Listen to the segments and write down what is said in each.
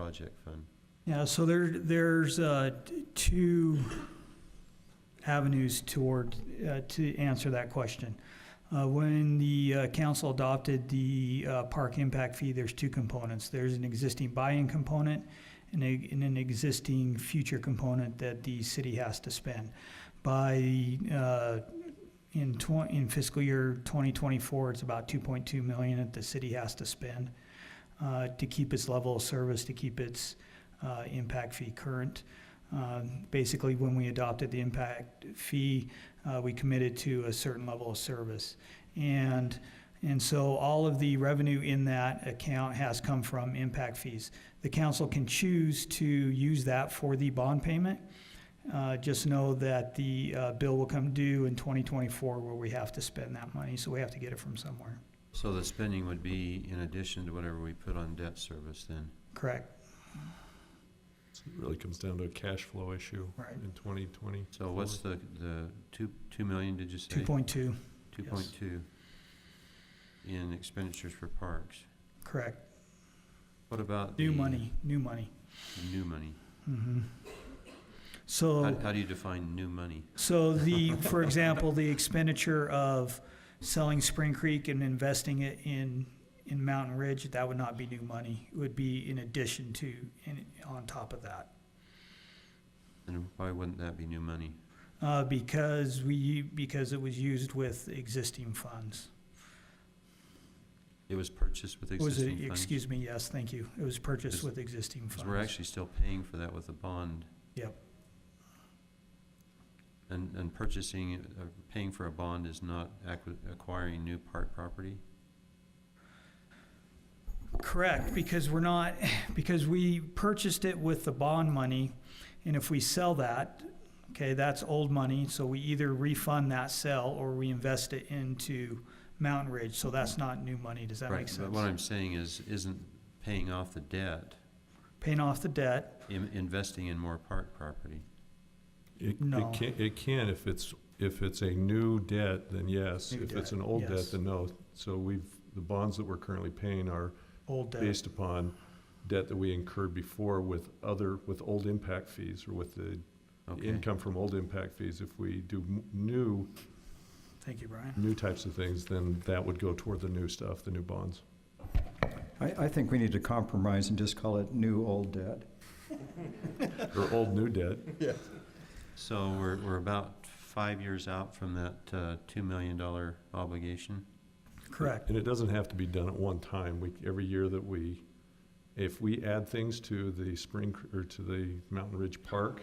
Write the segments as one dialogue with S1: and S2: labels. S1: project fund.
S2: Yeah, so there, there's uh, t- two avenues toward, uh, to answer that question. Uh, When the uh, council adopted the uh, park impact fee, there's two components. There's an existing buy-in component and a- and an existing future component that the city has to spend. By, uh, in twen- in fiscal year 2024, it's about 2.2 million that the city has to spend uh, to keep its level of service, to keep its uh, impact fee current. Uh, Basically, when we adopted the impact fee, uh, we committed to a certain level of service. And, and so all of the revenue in that account has come from impact fees. The council can choose to use that for the bond payment. Uh, Just know that the uh, bill will come due in 2024 where we have to spend that money, so we have to get it from somewhere.
S1: So the spending would be in addition to whatever we put on debt service then?
S2: Correct?
S3: So It really comes down to a cash flow issue
S2: Right.
S3: in 2020.
S1: So what's the, the two, two million, did you say?
S2: 2.2,
S1: Two point two in expenditures for parks.
S2: correct.
S1: What about?
S2: New
S1: the
S2: money, new money.
S1: New money.
S2: Mhm. So.
S1: How, how do you define new money?
S2: So the, for example, the expenditure of selling Spring Creek and investing it in, in Mountain Ridge, that would not be new money. It would be in addition to, in, on top of that.
S1: And why wouldn't that be new money?
S2: Uh, because we, because it was used with existing funds.
S1: It was purchased with
S2: Was
S1: existing
S2: it,
S1: funds?
S2: excuse me, yes, thank you. It was purchased
S1: Is-
S2: with existing
S1: Because we're
S2: funds.
S1: actually still paying for that with a bond.
S2: Yep.
S1: And, and purchasing, uh, paying for a bond is not acqui- acquiring new park property?
S2: Correct, because we're not, because we purchased it with the bond money, and if we sell that, okay, that's old money, so we either refund that sell or we invest it into Mountain Ridge, so that's not new money, does that
S1: Right,
S2: make
S1: But
S2: sense?
S1: what I'm saying is, isn't paying off the debt,
S2: Paying off the debt,
S1: im- investing in more park property?
S3: It,
S2: No.
S3: it can, it can if it's, if it's a new debt, then yes.
S2: New
S3: If it's
S2: debt,
S3: an old
S2: yes.
S3: debt, then no. So we've, the bonds that we're currently paying are
S2: old debt,
S3: based upon debt that we incurred before with other, with old impact fees or with the
S1: Okay,
S3: income from old impact fees. If we do m- new,
S2: thank you, Brian.
S3: new types of things, then that would go toward the new stuff, the new bonds.
S4: I, I think we need to compromise and just call it new old debt.
S3: Or old new debt.
S1: so we're, we're about five years out from that, uh, two million dollar obligation?
S2: Correct,
S3: And it doesn't have to be done at one time. We, every year that we, if we add things to the spring, Cr- or to the Mountain Ridge Park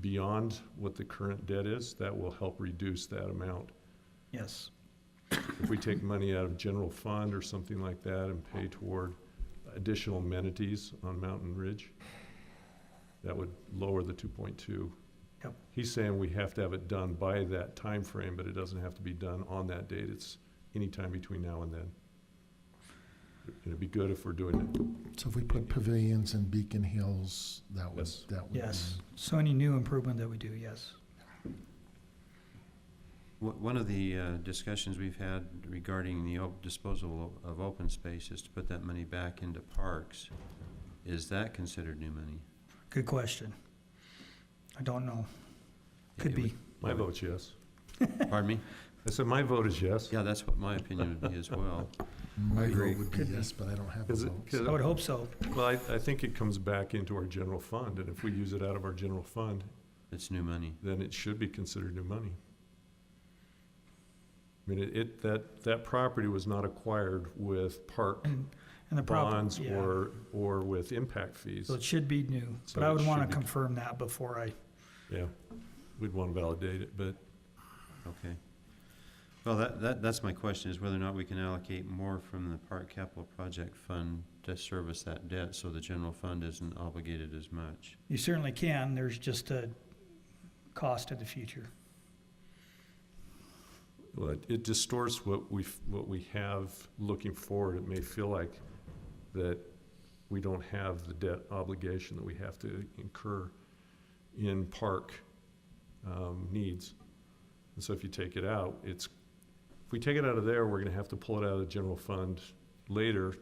S3: beyond what the current debt is, that will help reduce that amount.
S2: yes,
S3: If we take money out of general fund or something like that and pay toward additional amenities on Mountain Ridge, that would lower the two point two.
S2: Yep.
S3: He's saying we have to have it done by that time frame, but it doesn't have to be done on that date. It's anytime between now and then. And It'd be good if we're doing it.
S5: So if we put pavilions in Beacon Hills, that would,
S3: Yes.
S5: that would be.
S2: yes. So any new improvement that we do, yes.
S1: Wh- One of the uh, discussions we've had regarding the op- disposal o- of open space is to put that money back into parks. Is that considered new money?
S2: Good question. I don't know, could
S1: It would-
S2: be,
S3: My vote's yes.
S1: Pardon me?
S3: I said my vote is yes.
S1: Yeah, that's what my opinion would be as well.
S5: My
S4: agree.
S5: vote would be
S2: Could be.
S5: yes, but I don't have a
S3: Is it-
S5: vote.
S3: could-
S2: I would hope so.
S3: Well, I, I think it comes back into our general fund, and if we use it out of our general fund,
S1: It's new money.
S3: then it should be considered new money. I mean, it- it, that, that property was not acquired with park
S2: And, and the problem,
S3: bonds
S2: yeah.
S3: or, or with impact fees.
S2: So it should be new,
S3: So
S2: but I
S3: it
S2: would
S3: should
S2: want
S3: be-
S2: to confirm that before I,
S3: Yeah, we'd want to validate it, but
S1: Okay. Well, that, that, that's my question, is whether or not we can allocate more from the park capital project fund to service that debt, so the general fund isn't obligated as much.
S2: you certainly can, there's just a cost to the future.
S3: well, it- it distorts what we, what we have looking forward. It may feel like that we don't have the debt obligation that we have to incur in park um, needs. And so if you take it out, it's, if we take it out of there, we're gonna have to pull it out of the general fund later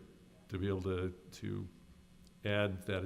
S3: to be able to, to add that